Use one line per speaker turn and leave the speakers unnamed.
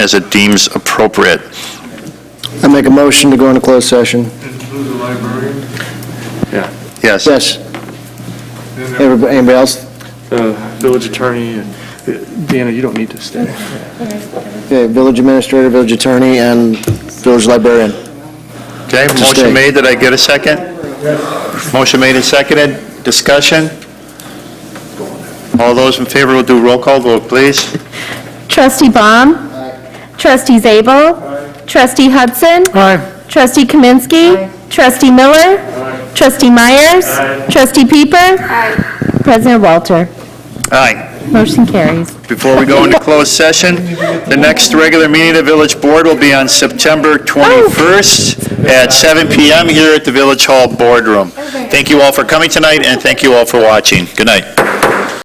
as it deems appropriate.
I make a motion to go into closed session.
Include the librarian?
Yes.
Yes. Everybody anybody else?
The uh, village attorney, and uh, Deanna, you don't need to stay.
Okay, village administrator, village attorney, and village librarian.
Okay,
To stay.
motion made, did I get a second? Motion made and seconded, discussion? All those in favor will do roll call vote, please.
Trustee Baum. Trustee Zabel. Trustee Hudson. Trustee Kaminsky. Trustee Miller. Trustee Myers. Trustee Pieper. President Walter.
Aye.
Motion carries.
Before we go into closed session, the next regular meeting of the Village Board will be on September 21st at 7 PM here at the Village Hall Boardroom. Thank you all for coming tonight, and thank you all for watching. Good night.